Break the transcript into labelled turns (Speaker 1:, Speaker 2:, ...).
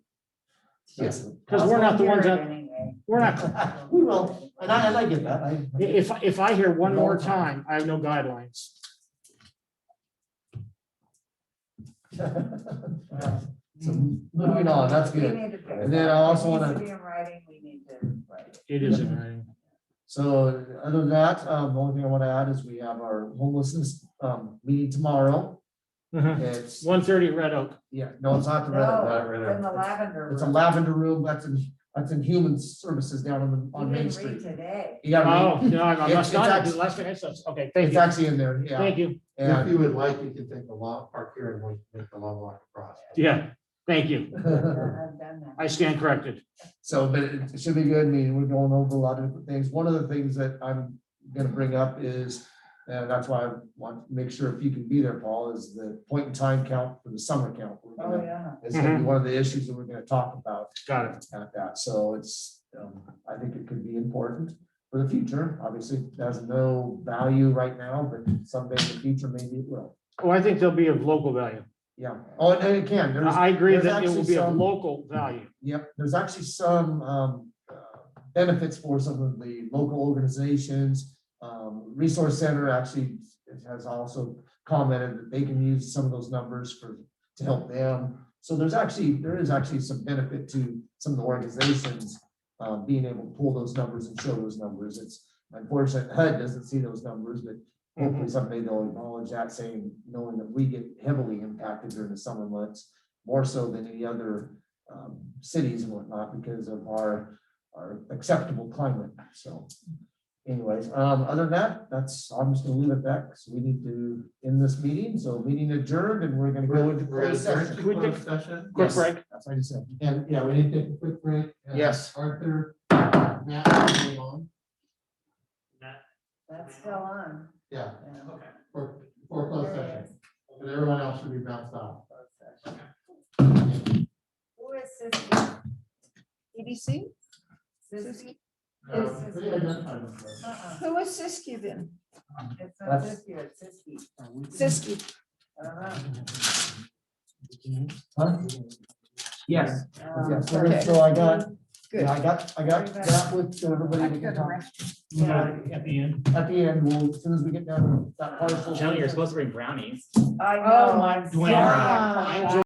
Speaker 1: Yes.
Speaker 2: Because we're not the ones that,
Speaker 3: Anyway.
Speaker 2: we're not,
Speaker 1: We will, and I, and I get that, I.
Speaker 2: if, if I hear one more time, I have no guidelines.
Speaker 1: So
Speaker 2: Mm.
Speaker 1: moving on, that's
Speaker 3: We
Speaker 1: good.
Speaker 3: need to fix
Speaker 1: And then I
Speaker 3: that. It
Speaker 1: also
Speaker 3: needs
Speaker 1: wanna-
Speaker 3: to Be in writing, we need to write.
Speaker 2: It
Speaker 1: Mm-hmm.
Speaker 2: is in writing.
Speaker 1: So other than that, um, the only thing I want to add is we have our homelessness, um, meeting tomorrow.
Speaker 2: Mhm.
Speaker 1: It's,
Speaker 2: 130 Red Oak.
Speaker 1: yeah, no, Mm-hmm. it's not the red.
Speaker 3: No,
Speaker 1: no,
Speaker 3: in the lavender.
Speaker 1: It's a
Speaker 3: room.
Speaker 1: lavender room that's in, that's in human services down on the, on
Speaker 3: You
Speaker 1: Main
Speaker 3: didn't read
Speaker 1: Street.
Speaker 3: Today.
Speaker 1: You gotta
Speaker 2: Oh,
Speaker 1: read.
Speaker 2: no, I I
Speaker 1: It's-
Speaker 2: must not. have
Speaker 1: it's
Speaker 2: did last night. That's- Okay, thank
Speaker 1: It's
Speaker 2: you.
Speaker 1: actually in there, yeah.
Speaker 2: Thank you.
Speaker 4: If
Speaker 1: And
Speaker 4: you would like, you can take the long, park here and we can make the long walk across.
Speaker 2: Yeah, thank you.
Speaker 3: Uh, I've done
Speaker 2: I
Speaker 3: that.
Speaker 2: stand corrected.
Speaker 1: so, but it it should be good. I mean, we're going over a lot of different things. One of the things that I'm gonna bring up is, and that's why I want to make sure if you can be there, Paul, is the point in time count for the summer count. We're gonna-
Speaker 3: Oh, yeah.
Speaker 1: It's gonna be one of the issues that we're gonna talk about
Speaker 2: Got it.
Speaker 1: at that, so it's, um, I think it could be important for the future, obviously, it has no value right now, but someday in the future, maybe it will.
Speaker 2: Well, Oh, I think they'll be of local value.
Speaker 1: Yeah, oh, and it can, there's,
Speaker 2: I agree
Speaker 1: there's
Speaker 2: that it will
Speaker 1: actually
Speaker 2: be of
Speaker 1: some-
Speaker 2: local value.
Speaker 1: yep, there's actually some, um, uh, benefits for some of the local organizations. Um, Resource Center actually has also commented that they can use some of those numbers for, to help them. So there's actually, there is actually some benefit to some of the organizations, uh, being able to pull those numbers and show those numbers. It's unfortunate HUD doesn't see those numbers, but hopefully someday they'll acknowledge that saying, knowing that we get heavily impacted during the summer months, more so than any other, um, cities and whatnot because of our, our acceptable climate, so. Anyways, um, other than that, that's, I'm just gonna leave it at that, because we need to end this meeting, so meeting adjourned, and we're gonna go
Speaker 4: We're,
Speaker 1: into
Speaker 4: we're in
Speaker 1: closed session.
Speaker 2: We
Speaker 4: a
Speaker 2: did-
Speaker 4: closed session.
Speaker 2: Quick
Speaker 1: Yes.
Speaker 2: break.
Speaker 1: That's what I just said.
Speaker 4: And, yeah, we need to take a quick break. and
Speaker 1: Yes.
Speaker 4: Arthur, Matt, are you on?
Speaker 3: That's still on.
Speaker 4: yeah,
Speaker 3: yeah.
Speaker 4: for, for closed
Speaker 3: There it
Speaker 4: session.
Speaker 3: is.
Speaker 4: But everyone else should be bounced off.
Speaker 3: Closed session. Who is this?
Speaker 5: EDC?
Speaker 3: Siski?
Speaker 4: Uh,
Speaker 3: This is-
Speaker 4: pretty identified with us.
Speaker 3: Uh-uh.
Speaker 5: Who is Siskiyou then?
Speaker 3: It's not
Speaker 1: That's-
Speaker 3: Siski, it's Siski. Uh-huh.
Speaker 5: Siskiyou.
Speaker 3: I don't know.
Speaker 1: Huh? Yes.
Speaker 3: Um,
Speaker 1: Yes, so that's
Speaker 5: um, okay.
Speaker 1: all I got,
Speaker 5: Good.
Speaker 1: yeah, I got, I got that with everybody. we can talk.
Speaker 3: Yeah.
Speaker 6: At the end.
Speaker 1: At the end, we'll, as soon as we get down to that parcel.
Speaker 6: Joe, you're supposed to bring brownies.
Speaker 3: I
Speaker 5: Oh,
Speaker 3: know, I'm
Speaker 6: Dwayne
Speaker 3: sorry.
Speaker 6: Rock.
Speaker 3: I'm-